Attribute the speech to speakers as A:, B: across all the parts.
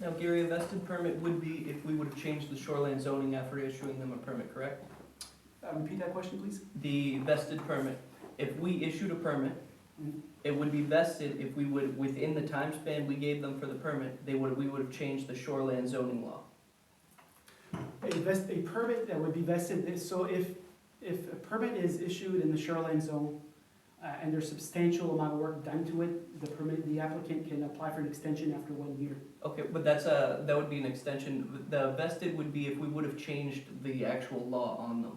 A: Now, Gary, a vested permit would be if we would have changed the shoreline zoning after issuing them a permit, correct?
B: Uh, Repeat that question, please.
A: The vested permit, if we issued a permit,
B: Mhm.
A: it would be vested if we would, within the time span we gave them for the permit, they would, we would have changed the shoreline zoning law.
B: A vest, a permit that would be vested, so if, if a permit is issued in the shoreline zone, uh, and there's substantial amount of work done to it, the permit, the applicant can apply for an extension after one year.
A: Okay, but that's a, that would be an extension, the vested would be if we would have changed the actual law on them.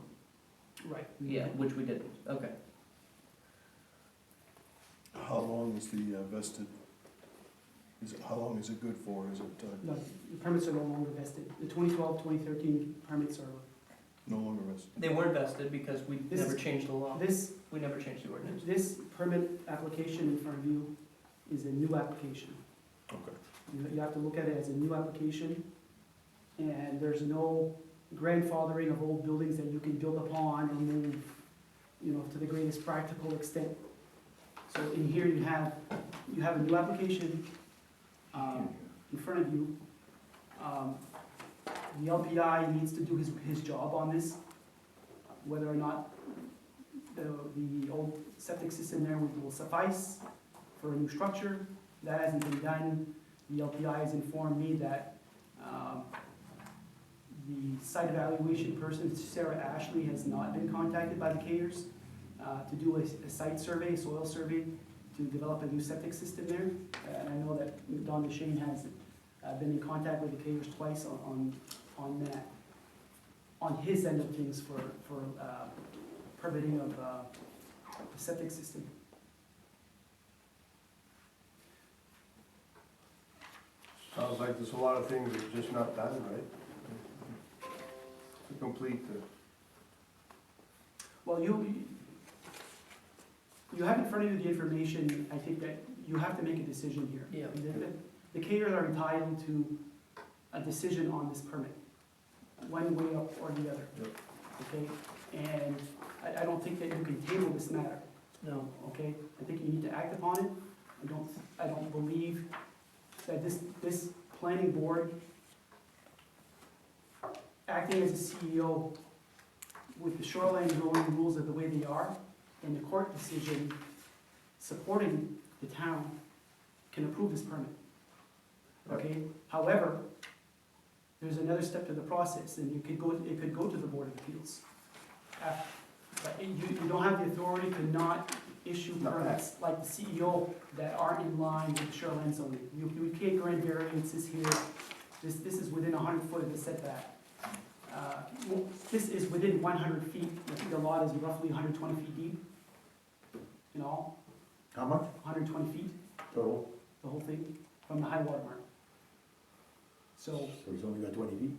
B: Right.
A: Yeah, which we didn't, okay.
C: How long is the uh, vested, is it, how long is it good for? Is it uh,
B: No, the permits are no longer vested. The 2012, 2013 permits are,
C: no longer vested?
A: They weren't vested because we
B: This
A: never
B: is-
A: changed the law,
B: this,
A: we never changed the ordinance.
B: this permit application in front of you is a new application.
C: Okay.
B: You, you have to look at it as a new application, and there's no grandfathering of old buildings that you can build upon and move, you know, to the greatest practical extent. So in here you have, you have a new application, um, in front of you. Um, the LPI needs to do his, his job on this, whether or not the, the old septic system there will suffice for a new structure. That hasn't been done. The LPI has informed me that um, the site evaluation person, Sarah Ashley, has not been contacted by the Kayers uh, to do a a site survey, soil survey, to develop a new septic system there. Uh, And I know that Don DeShane has uh, been in contact with the Kayers twice on- on, on that, on his end of things for, for uh, permitting of uh, the septic system.
D: Sounds like there's a lot of things that are just not done, right? To complete the,
B: Well, you, you have in front of you the information, I think that you have to make a decision here.
A: Yeah.
B: The- the- The caterers are entitled to a decision on this permit, one way or the other.
D: Yep.
B: Okay, and I, I don't think that you can table this matter,
A: No,
B: okay? I think you need to act upon it. I don't, I don't believe that this, this planning board acting as a CEO with the shoreline zoning rules of the way they are, and the court decision supporting the town can approve this permit. Okay, however, there's another step to the process, and you could go, it could go to the Board of Appeals. Uh, But you, you don't have the authority to not issue
D: No.
B: permits like the CEO that aren't in line with shoreline zoning. You, you can't grant variances here, this, this is within hundred foot of the setback uh, well, this is within one hundred feet, I think the lot is roughly hundred twenty feet deep in all,
D: how much
B: hundred twenty feet,
D: total?
B: the whole thing, from the high water mark. So,
E: So he's only got twenty feet,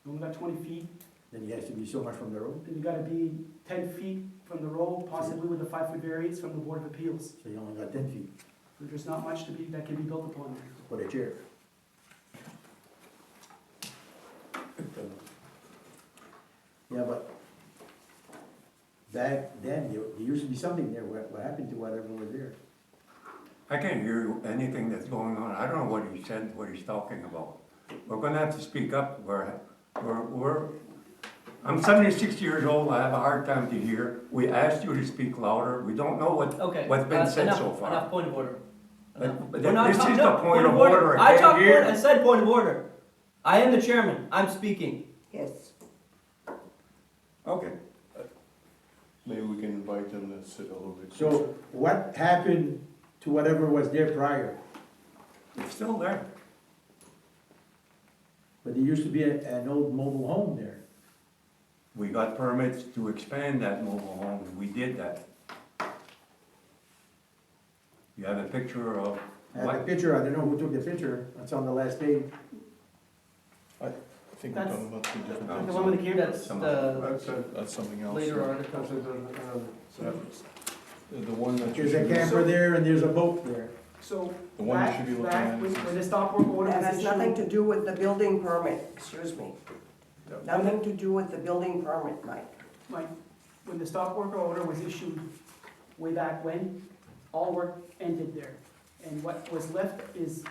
B: you only got twenty feet,
E: then he has to be so much from the road,
B: then you gotta be ten feet from the road, possibly with a five-foot variance from the Board of Appeals.
E: so he only got ten feet
B: There's not much to be, that can be built upon there.
E: for a chair. Yeah, but back then, there there used to be something there, what, what happened to what everyone was there?
F: I can't hear anything that's going on. I don't know what he said, what he's talking about. We're gonna have to speak up. We're, we're, we're, I'm seventy-six years old. I have a hard time to hear. We asked you to speak louder. We don't know what,
A: okay.
F: what's been
A: uh,
F: said
A: enough-
F: so far.
A: Enough, point of order.
F: But-
A: Enough.
F: but
A: We're not
F: this
A: talking-
F: is the
A: no,
F: point of order. I can't
A: talked
F: hear.
A: point- I said point of order. I am the chairman, I'm speaking.
E: Yes.
F: okay.
C: Maybe we can invite them to sit a little bit closer.
E: So what happened to whatever was there prior?
F: It's still there.
E: But there used to be a- an old mobile home there.
F: We got permits to expand that mobile home, and we did that. You have a picture of
E: I have a
F: what?
E: picture, I don't know who took the picture, it's on the last page.
C: I think we're talking about two different
B: The
C: things.
B: one with the
A: That's
B: cameras,
F: Some of
A: the
D: That's a,
C: That's something else.
A: later
D: that's
A: article.
D: a, um,
C: That- The the one that you
E: There's a
C: should, be-
E: camper there and there's a boat there.
B: so
C: the one you
B: back,
C: should be looking
B: back,
C: at
B: when
C: is
B: when the stop work order
G: That
B: was
G: has nothing
B: issued,
G: to do with the building permit, excuse me.
D: Yep.
G: Nothing to do with the building permit, Mike.
B: like, when the stop work order was issued way back when, all work ended there. And what was left is